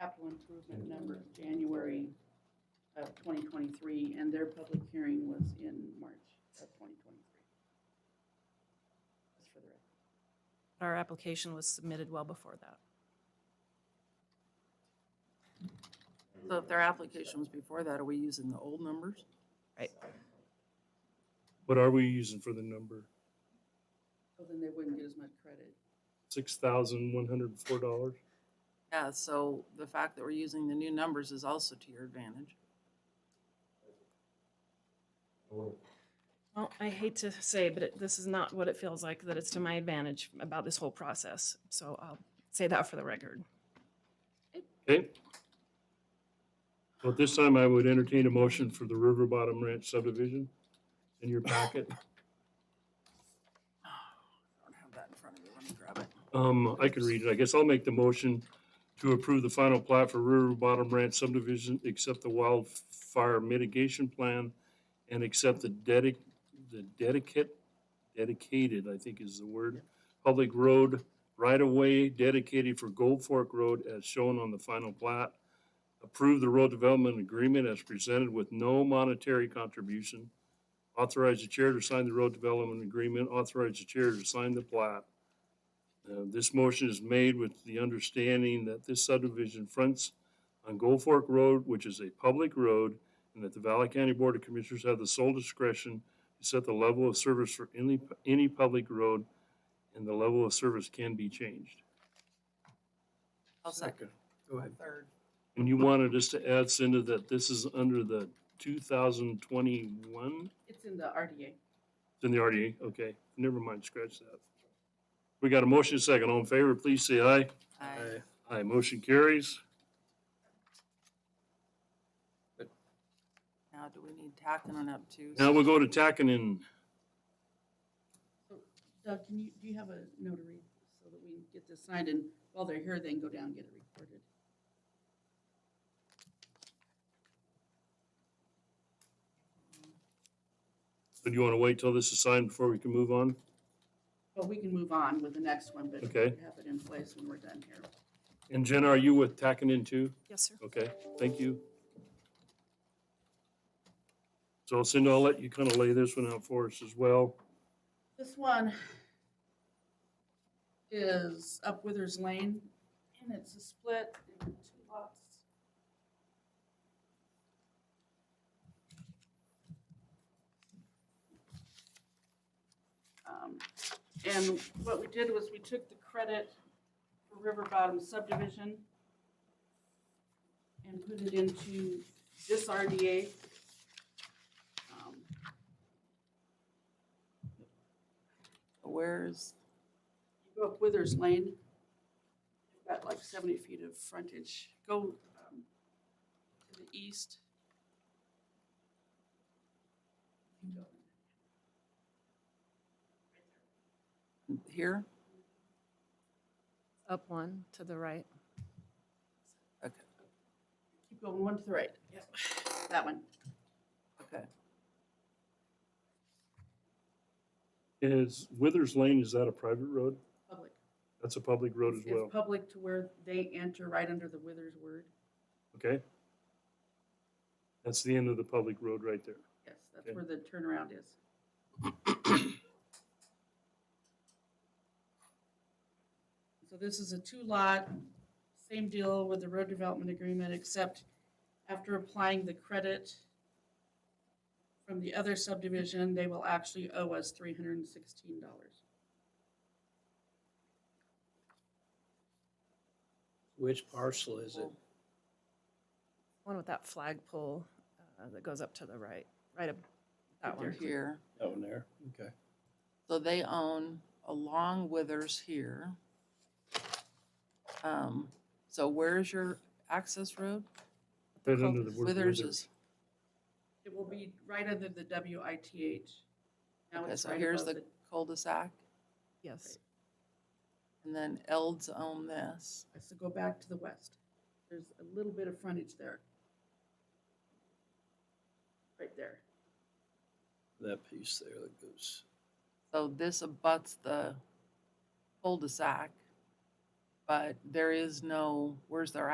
capital improvement numbers, January of 2023, and their public hearing was in March of 2023. Just for the record. Our application was submitted well before that. So if their application was before that, are we using the old numbers? What are we using for the number? So then they wouldn't get as much credit. Six thousand one hundred and four dollars? Yeah, so the fact that we're using the new numbers is also to your advantage. Well, I hate to say, but it- this is not what it feels like, that it's to my advantage about this whole process. So I'll say that for the record. Okay. Well, at this time, I would entertain a motion for the River Bottom Ranch subdivision in your packet. I don't have that in front of me, let me grab it. Um, I can read it. I guess I'll make the motion to approve the final plat for River Bottom Ranch subdivision, accept the wildfire mitigation plan, and accept the dedic, the dedicate, dedicated, I think is the word, public road right-of-way dedicated for Gold Fork Road as shown on the final plat. Approve the road development agreement as presented with no monetary contribution. Authorize the chair to sign the road development agreement. Authorize the chair to sign the plat. Uh, This motion is made with the understanding that this subdivision fronts on Gold Fork Road, which is a public road, and that the Valley County Board of Commissioners have the sole discretion to set the level of service for any, any public road, and the level of service can be changed. I'll second. Go ahead. Third. And you wanted us to add, Cindy, that this is under the two thousand twenty-one? It's in the RDA. It's in the RDA, okay, never mind, scratch that. We got a motion and a second, all in favor, please say aye. Aye. Aye, motion carries. Now, do we need tacking on up to? Now we'll go to Tackinon. Doug, can you, do you have a notary so that we can get this signed? And while they're here, they can go down and get it recorded. Do you want to wait till this is signed before we can move on? But we can move on with the next one, but Okay. have it in place when we're done here. And Jenna, are you with Tackinon too? Yes, sir. Okay, thank you. So Cindy, I'll let you kind of lay this one out for us as well. This one is up Withers Lane, and it's a split into two lots. Um, And what we did was we took the credit for River Bottom subdivision and put it into this RDA. Um, Where's, You go up Withers Lane, you've got like seventy feet of frontage. Go um, to the east. You go here? Up one to the right. Keep going one to the right. Yep. That one. Okay. Is Withers Lane, is that a private road? Public. That's a public road as It's well, public to where they enter right under the Withers word. okay? That's the end of the public road right there. Yes, that's Okay. where the turnaround is. So this is a two-lot, same deal with the road development agreement, except after applying the credit from the other subdivision, they will actually owe us three hundred and sixteen dollars. Which parcel is it? One with that flagpole uh, that goes up to the right, right up that Right there. one. Here. Down there, okay. So they own along Withers here. Um, so where's your access road? Right under the word Withers is, It will be right under the W I T H. Now okay, it's so right here's above the cul-de-sac, Yes. and then Elds own this. So go back to the west. There's a little bit of frontage there. Right there. That piece there that goes, So this abuts the cul-de-sac, but there is no, where's their